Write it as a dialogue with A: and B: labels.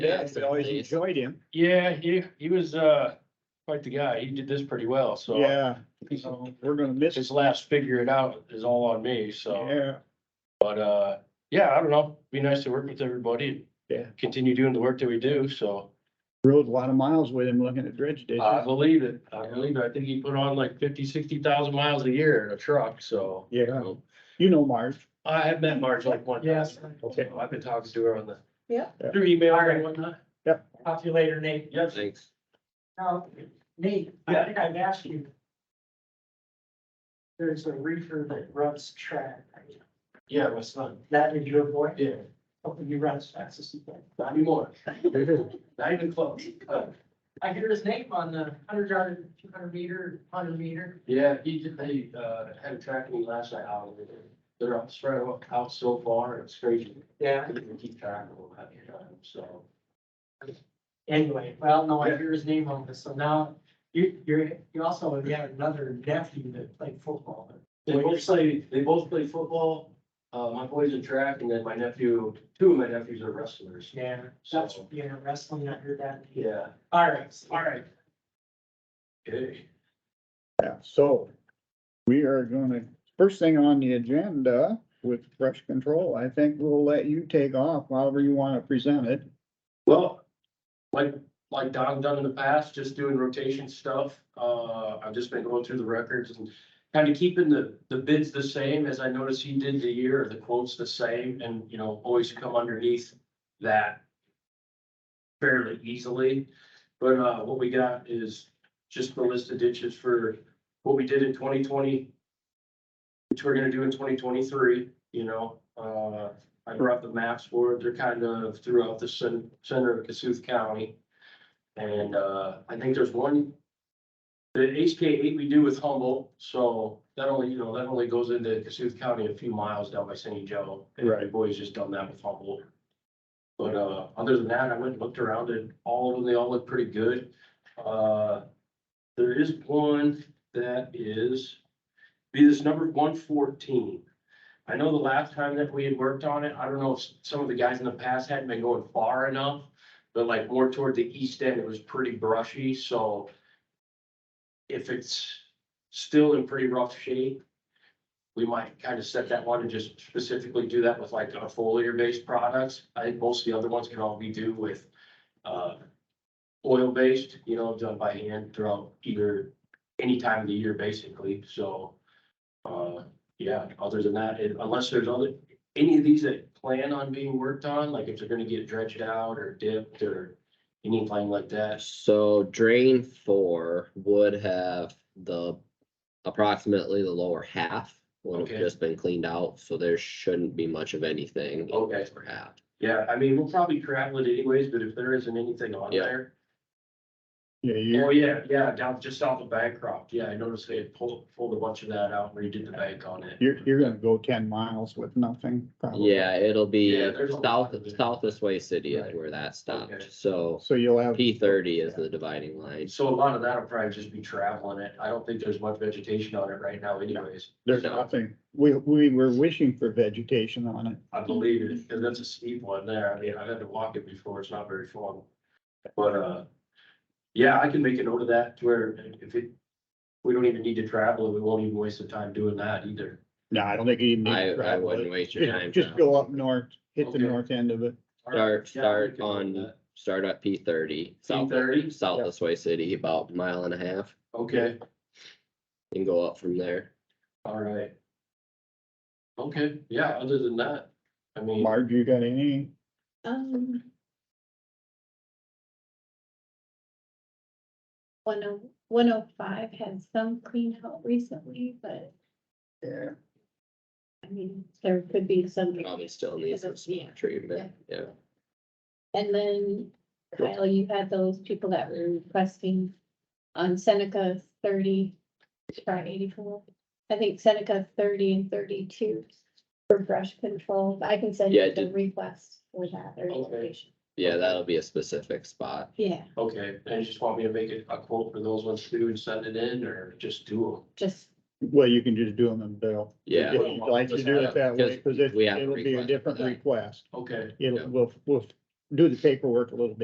A: Yeah,
B: I always
A: please.
B: enjoyed him.
C: Yeah, he, he was, uh, quite the guy. He did this pretty well, so.
B: Yeah,
C: so
B: we're gonna miss
C: His
B: his.
C: last figure it out is all on me, so,
B: Yeah,
C: but, uh, yeah, I don't know. Be nice to work with everybody.
B: Yeah.
C: Continue doing the work that we do, so.
B: rode a lot of miles with him looking at dredge ditches.
C: I believe it. I believe it. I think he put on like fifty, sixty thousand miles a year in a truck, so.
B: Yeah, you know Marge.
C: I have met Marge like one.
D: Yes.
C: Okay, I've been talking to her on the.
D: Yeah.
C: Through email and whatnot.
D: Talk to you later, Nate.
C: Yes.
A: Thanks.
D: Now, Nate, I
C: Yeah.
D: think I've asked you. There's a reefer that runs track.
C: Yeah, my son.
D: That is your boy?
C: Yeah,
D: Hoping you run as fast as you can.
C: not anymore. Not even close. Uh,
D: I hear his name on the hundred yard, two hundred meter, hundred meter.
C: Yeah, he did, they, uh, had a track meet last night out there. They're up, spread out- out so far, it's crazy. I
D: Yeah.
C: couldn't even keep track of them half the time, so.
D: Anyway, well, no, I hear his name on this, so now you, you're, you also have got another nephew that played football.
C: They both play, they both play football, uh, my boy's in track, and then my nephew, two of my nephews are wrestlers,
D: Yeah. That's,
C: so,
D: you know, wrestling, I heard that.
C: yeah.
D: All right, all right.
C: Hey,
B: Yeah, so we are gonna, first thing on the agenda with brush control, I think we'll let you take off however you wanna present it.
C: Well, like, like Don done in the past, just doing rotation stuff, uh, I've just been going through the records and kind of keeping the, the bids the same, as I noticed he did the year, the quotes the same, and, you know, always come underneath that fairly easily, but, uh, what we got is just the list of ditches for what we did in twenty twenty, which we're gonna do in twenty twenty-three, you know, uh, I brought the maps for it. They're kind of throughout the cen- center of Cassuth County. And uh, I think there's one. The HK eight we do with Humboldt, so that only, you know, that only goes into Cassuth County a few miles down by San Joe. And my
B: Right.
C: boys just done that with Humboldt. But uh, other than that, I went and looked around and all of them, they all look pretty good. Uh, there is one that is, be this number one fourteen. I know the last time that we had worked on it, I don't know if s- some of the guys in the past hadn't been going far enough, but like more toward the east end, it was pretty brushy, so if it's still in pretty rough shape, we might kind of set that one and just specifically do that with like uh, foliar-based products. I think most of the other ones can all be do with uh, oil-based, you know, done by hand throughout either any time of the year, basically, so uh, yeah, other than that, it- unless there's other, any of these that plan on being worked on, like if they're gonna get dredged out or dipped or anything like that.
A: So drain four would have the approximately the lower half would
C: Okay.
A: have just been cleaned out, so there shouldn't be much of anything. in the
C: Okay.
A: lower half.
C: Yeah, I mean, we'll probably travel it anyways, but if there isn't anything on
A: Yeah.
C: there.
B: Yeah, you,
C: Oh, yeah, yeah, down, just off the Bancroft. Yeah, I noticed they had pulled, pulled a bunch of that out and redid the bank on it.
B: you're, you're gonna go ten miles with nothing. probably.
A: Yeah, it'll be
C: Yeah, there's a lot
A: south,
C: of it.
A: south this way city is
C: Right.
A: where that
C: Okay.
A: stopped, so
B: So you'll have.
A: P thirty is the dividing line.
C: So a lot of that'll probably just be traveling it. I don't think there's much vegetation on it right now anyways.
B: There's
A: No.
B: nothing. We, we were wishing for vegetation on it.
C: I believe it, because that's a steep one there. I mean, I've had to walk it before. It's not very fun. But, uh, yeah, I can make a note of that to where if it, we don't even need to travel and we won't even waste the time doing that either.
B: No, I don't think you need. to
A: I- I
B: travel
A: wouldn't
B: it.
A: waste your
B: Just-
A: time
B: Just go up north, hit the
C: Okay.
B: north end of it.
A: Start,
C: Yeah, I
A: start
C: can note
A: on,
C: that.
A: start at P thirty, south,
C: P30?
A: south
B: Yeah.
A: this way city, about a mile and a half,
C: Okay,
A: and go up from there.
C: all right. Okay, yeah, other than that, I mean,
B: Marge, you got any?
E: Um. One oh, one oh five had some clean out recently, but
B: Yeah.
E: I mean, there could be some.
A: Probably still needs some
E: Yeah.
A: treatment, yeah.
E: And then Kyle, you had those people that were requesting on Seneca thirty, sorry, eighty-four. I think Seneca thirty and thirty-two for brush control. I can send
A: Yeah, I
E: you the
A: did-
E: request for that or
C: Okay.
E: information.
A: Yeah, that'll be a specific spot.
E: Yeah,
C: okay, and you just want me to make a a quote for those ones too and send it in or just do
E: just
B: Well, you can just do them in bill.
A: Yeah.
B: If you'd like to do it that way, because
A: We have a
B: it'll be a
A: request for
B: different
A: that.
B: request.
C: them? Okay,
A: Yeah.
B: It'll, we'll, we'll do the paperwork a little bit.